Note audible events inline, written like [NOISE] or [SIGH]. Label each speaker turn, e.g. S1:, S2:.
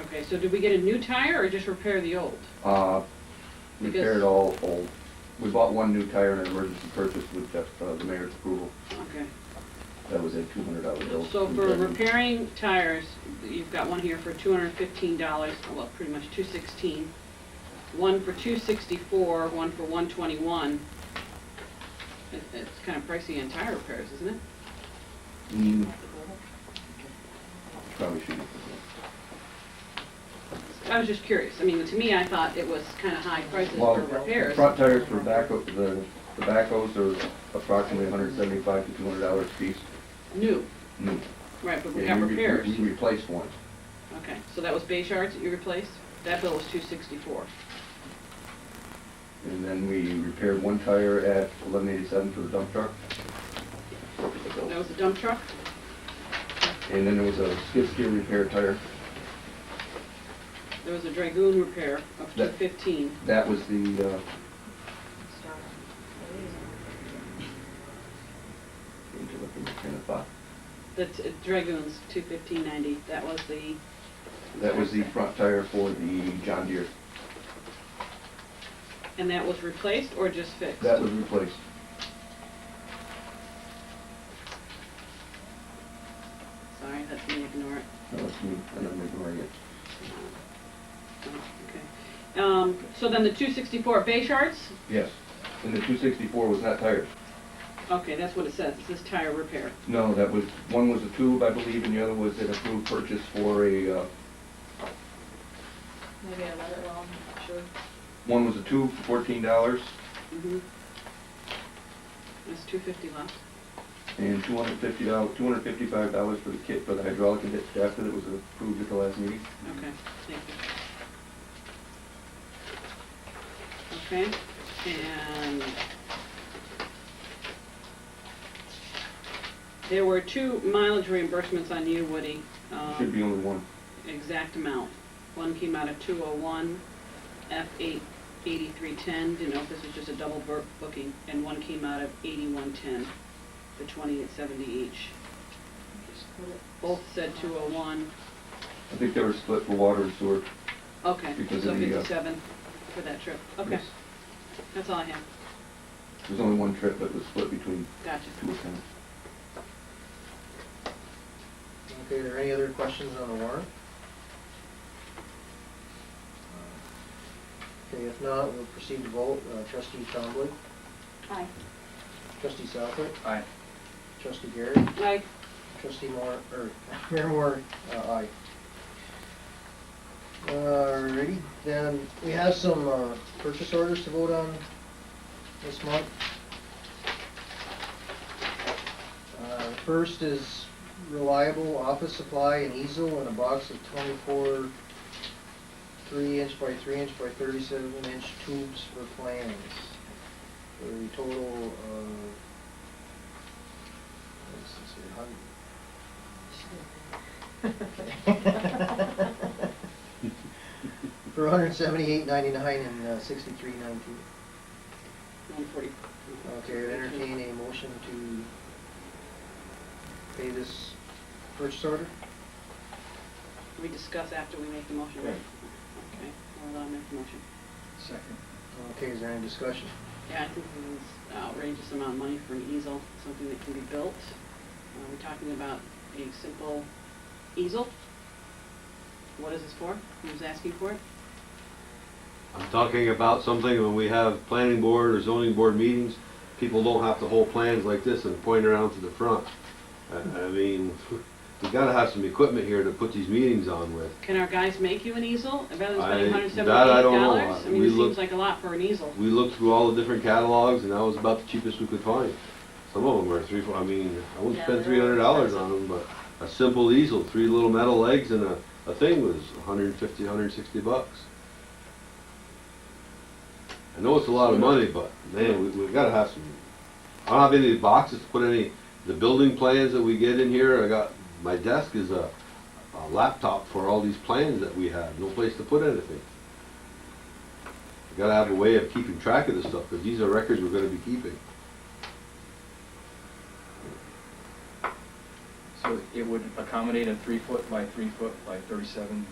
S1: Okay, so did we get a new tire or just repair the old?
S2: Uh,
S1: Because-
S2: repaired all old. We bought one new tire and an emergency purchase with the, uh, the mayor's approval.
S1: Okay.
S2: That was a two hundred dollar bill.
S1: So
S2: from
S1: for
S2: Kevin.
S1: repairing tires, you've got one here for two hundred and fifteen dollars, well, pretty much two sixteen. One for two sixty-four, one for one twenty-one. It, it's kind of pricey on tire repairs, isn't it?
S2: Mm. Probably shouldn't.
S1: I was just curious. I mean, to me, I thought it was kind of high prices
S2: Well,
S1: for repairs.
S2: Front tires for backhoe, the, the backhoes are approximately hundred seventy-five to two hundred dollars a piece.
S1: New,
S2: Mm.
S1: right, but we
S2: And
S1: got
S2: re-
S1: repairs.
S2: We replaced one.
S1: Okay, so that was Bay Shards that you replaced? That bill was two sixty-four.
S2: And then we repaired one tire at eleven eighty-seven for the dump truck.
S1: That was the dump truck?
S2: And then there was a skid steer repair tire.
S1: There was a Dragoon repair of two
S2: That-
S1: fifteen.
S2: That was the, uh, into the kind of thought.
S1: The t- Dragoons, two fifteen ninety, that was the,
S2: That was the front tire for the John Deere.
S1: and that was replaced or just fixed?
S2: That was replaced.
S1: Sorry, that's me, ignore it.
S2: That was me, and I'm ignoring it.
S1: Oh, Okay. Um, so then the two sixty-four Bay Shards,
S2: Yes. And the two sixty-four was not tires.
S1: okay, that's what it says, it says tire repair.
S2: No, that was, one was a tube, I believe, and the other was an approved purchase for a, uh,
S3: Maybe I read it wrong, sure.
S2: one was a tube for fourteen dollars
S1: Mhm. That's two fifty left.
S2: and two hundred fifty dollars, two hundred fifty-five dollars for the kit for the hydraulic and ditch after that was approved at the last meeting.
S1: Okay, thank you. Okay, and there were two mileage reimbursements on you, Woody. um,
S2: Should be only one.
S1: Exact amount. One came out of two oh one, F eight eighty-three ten, didn't know if this was just a double bur- booking, and one came out of eighty-one ten, the twenty at seventy each. Both said two oh one,
S2: I think they were split for water and sewer.
S1: okay,
S2: Because
S1: so
S2: of the, uh,
S1: fifty-seven for that trip, okay.
S2: Yes.
S1: That's all I have.
S2: There was only one trip, but it was split between
S1: Gotcha.
S2: two accounts.
S4: Okay, are there any other questions on the warrant? Okay, if not, we'll proceed to vote. Uh, Trustee Trombley,
S3: Aye.
S4: trustee Southwick,
S5: Aye.
S4: trustee Garrett,
S1: Aye.
S4: trustee Moore, or Mayor Moore, uh, aye. Alrighty, then we have some uh, purchase orders to vote on this month. Uh, First is reliable office supply and easel and a box of twenty-four three-inch by three-inch by thirty-seven-inch tubes for plans. For a total of, let's see, a hundred, [LAUGHS]
S1: oh
S3: [LAUGHS]
S4: for one hundred seventy-eight ninety-nine and uh, sixty-three nineteen.
S1: One forty.
S4: Okay, I'd entertain a motion to pay this purchase order?
S1: We discuss after we make the motion, right?
S4: Right.
S1: Okay, hold on, make the motion.
S5: Second.
S4: Okay, is there any discussion?
S1: Yeah, I think this is outrageous amount of money for an easel, something that can be built. Uh, We're talking about a simple easel. What is this for? Who's asking for it?
S6: I'm talking about something when we have planning board or zoning board meetings, people don't have to hold plans like this and point around to the front. I, I mean, [LAUGHS] we gotta have some equipment here to put these meetings on with.
S1: Can our guys make you an easel? Rather than
S6: I-
S1: spending hundred seventy-eight
S6: that I don't know.
S1: dollars? I mean,
S6: We
S1: it seems
S6: looked-
S1: like a lot for an easel.
S6: We looked through all the different catalogs and that was about the cheapest we could find. Some of them were three, four, I mean, I wouldn't
S3: Yeah,
S6: spend
S3: they're
S6: three hundred dollars on them,
S3: expensive.
S6: but a simple easel, three little metal legs and a, a thing was a hundred and fifty, hundred and sixty bucks. I know it's a lot of money, but man, we, we've gotta have some, I don't have any boxes to put any, the building plans that we get in here, I got, my desk is a, a laptop for all these plans that we have, no place to put anything. We Gotta have a way of keeping track of this stuff, because these are records we're gonna be keeping.
S5: So it would accommodate a three foot by three foot by thirty-seven